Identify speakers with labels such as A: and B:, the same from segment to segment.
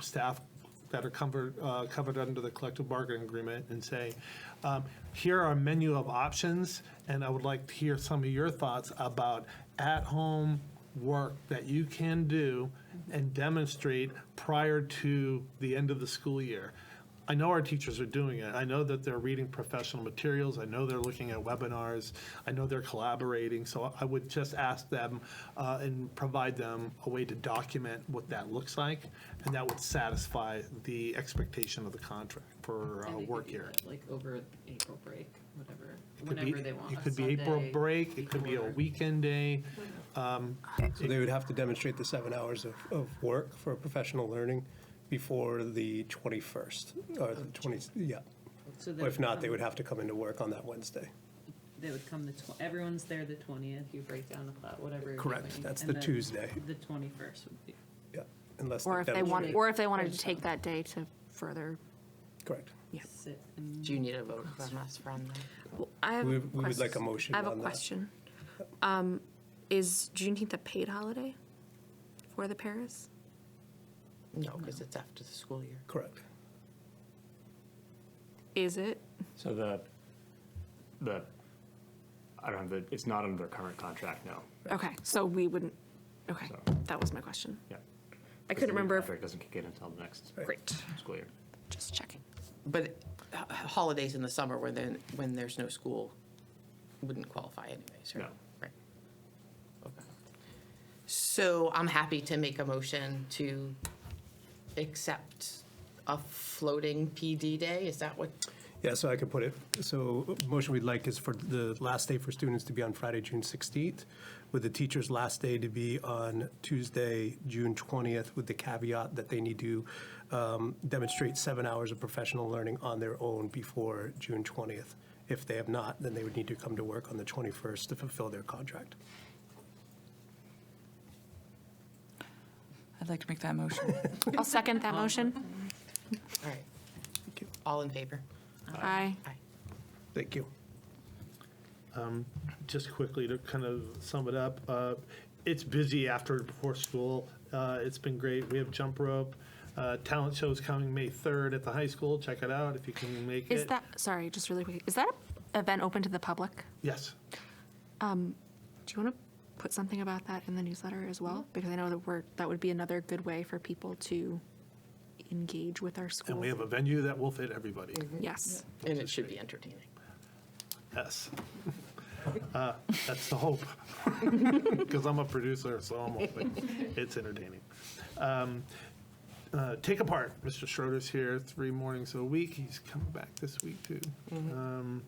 A: staff that are covered, uh, covered under the collective bargaining agreement and say, um, here are a menu of options, and I would like to hear some of your thoughts about at-home work that you can do and demonstrate prior to the end of the school year. I know our teachers are doing it. I know that they're reading professional materials. I know they're looking at webinars. I know they're collaborating. So I would just ask them uh, and provide them a way to document what that looks like, and that would satisfy the expectation of the contract for uh,
B: And they could
A: work
B: do
A: here.
B: that, Like over April break, whatever,
A: Could be-
B: whenever they want.
A: It
B: a
A: could be April
B: Sunday
A: break. It could be a
B: before.
A: weekend day.
C: So they would have to demonstrate the seven hours of, of work for professional learning before the 21st, or the 20, yeah.
B: So they
C: If not, they
B: come-
C: would have to come into work on that Wednesday.
B: They would come the, tw- everyone's there the twentieth, you break down a thought, whatever. you're
C: Correct,
B: doing,
C: that's
B: and
C: the
B: then
C: Tuesday,
B: The twenty-first would be,
C: yeah, unless.
D: Or if they
C: demonstrate-
D: wanted, or if they wanted to take that day to further,
C: Correct.
B: sit and
E: Do you need a vote from us for on that?
D: Well, I have.
C: We
D: a
C: we would like a
D: quest-
C: motion
D: I have
C: on that.
D: a question. Um, Is Juneteenth a paid holiday for the Paris?
E: No, because it's after the school year.
C: Correct.
D: Is it?
F: So the, the, I don't have the, it's not under their current contract, no.
D: Okay, so we wouldn't, okay,
F: So-
D: that was my question.
F: Yeah.
D: I couldn't remember, if-
F: Contract doesn't kick in until the next
D: great,
F: school year.
D: just checking.
E: But h- h- holidays in the summer when then, when there's no school wouldn't qualify anyways, right?
F: No.
E: Right. Okay. So I'm happy to make a motion to accept a floating PD day. Is that what?
C: Yeah, so I could put it, so motion we'd like is for the last day for students to be on Friday, June 16th, with the teacher's last day to be on Tuesday, June 20th, with the caveat that they need to um, demonstrate seven hours of professional learning on their own before June 20th. If they have not, then they would need to come to work on the 21st to fulfill their contract.
G: I'd like to make that motion.
D: I'll Um, second that motion.
E: All right. All in favor?
D: Aye.
E: Aye.
C: Thank you.
A: just quickly to kind of sum it up, uh, it's busy after and before school. Uh, It's been great. We have jump rope. uh, Talent show's coming May 3rd at the high school. Check it out if you can make it.
D: Is that, sorry, just really quick, is that a event open to the public?
A: Yes.
D: Do you want to put something about that in the newsletter as well? Because I know that we're, that would be another good way for people to engage with our school.
A: And we have a venue that will fit everybody.
D: Yes.
E: And it should be entertaining.
A: Yes. Uh, That's the hope. Because I'm a producer, so I'm hoping it's entertaining. Um, uh, Take apart, Mr. Schroeder's here three mornings a week. He's coming back this week too.
E: Mm-hmm.
A: Um,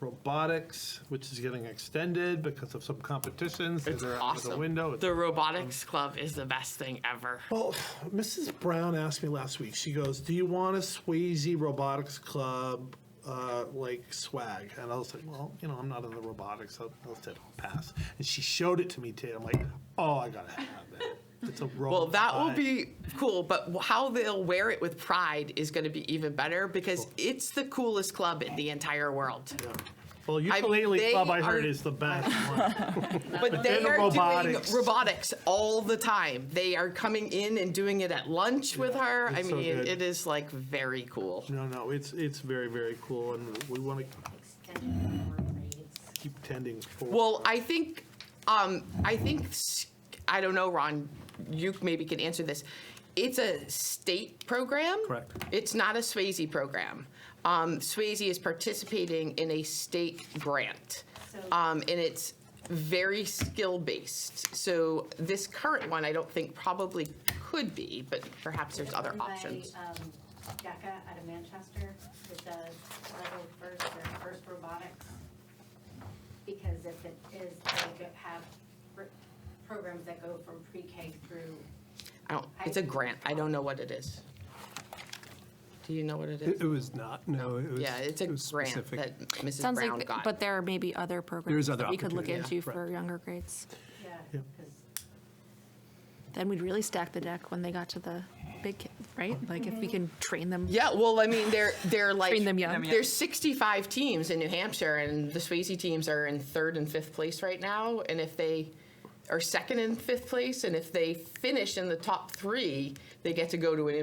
A: Robotics, which is getting extended because of some competitions. that
E: It's
A: are out of The
E: awesome.
A: window. It's
E: The robotics club is the best thing ever.
A: well, Mrs. Brown asked me last week. She goes, "Do you want a Swayze Robotics Club uh, like swag?" And I was like, "Well, you know, I'm not in the robotics. I'll, I'll say I'll pass." And she showed it to me today. I'm like, "Oh, I gotta have that. It's a robot."
E: Well, that will be cool, but how they'll wear it with pride is going to be even better because it's the coolest club in the entire world.
A: Well,
E: mean,
A: ukulele
E: they
A: club I heard
E: are-
A: is the best one.
E: But they
A: then
E: are
A: robotics.
E: doing robotics all the time. They are coming in and doing it at lunch with
A: Yeah,
E: her. I
A: it's so
E: mean,
A: good.
E: it is like very cool.
A: No, no, it's it's very very cool, and we want to
H: extended four grades.
A: keep tending for.
E: Well, I think, um, I think, s- I don't know, Ron, you maybe can answer this. It's a state program.
C: Correct.
E: It's not a Swayze program. Um, Swayze is participating in a state grant. Um, and it's very skill-based. So this current one, I don't think probably could be, but perhaps there's other
H: Run by,
E: options.
H: um, DECA out of Manchester, that does level first, their first robotics. Because if it is, they could have pr- programs that go from pre-K through,
E: I don't, it's a grant. I don't know what it is. Do you know what it
C: It
E: is?
C: it was not, no, it was.
E: Yeah, it's a
C: it was
E: grant
C: specific.
E: that Mrs.
D: Sounds
E: Brown
D: like,
E: got.
D: but there are maybe other programs
C: other
D: that we could look
C: opportunity, yeah,
D: into for
C: correct.
D: younger grades.
H: yeah, because
D: Then we'd really stack the deck when they got to the big, ki- right? Like if we can train them.
E: Yeah, well, I mean, they're they're like
D: Train them young.
E: There's 65 teams in New Hampshire, and the Swayze teams are in third and fifth place right now. And if they are second and fifth place, and if they finish in the top three, they get to go to an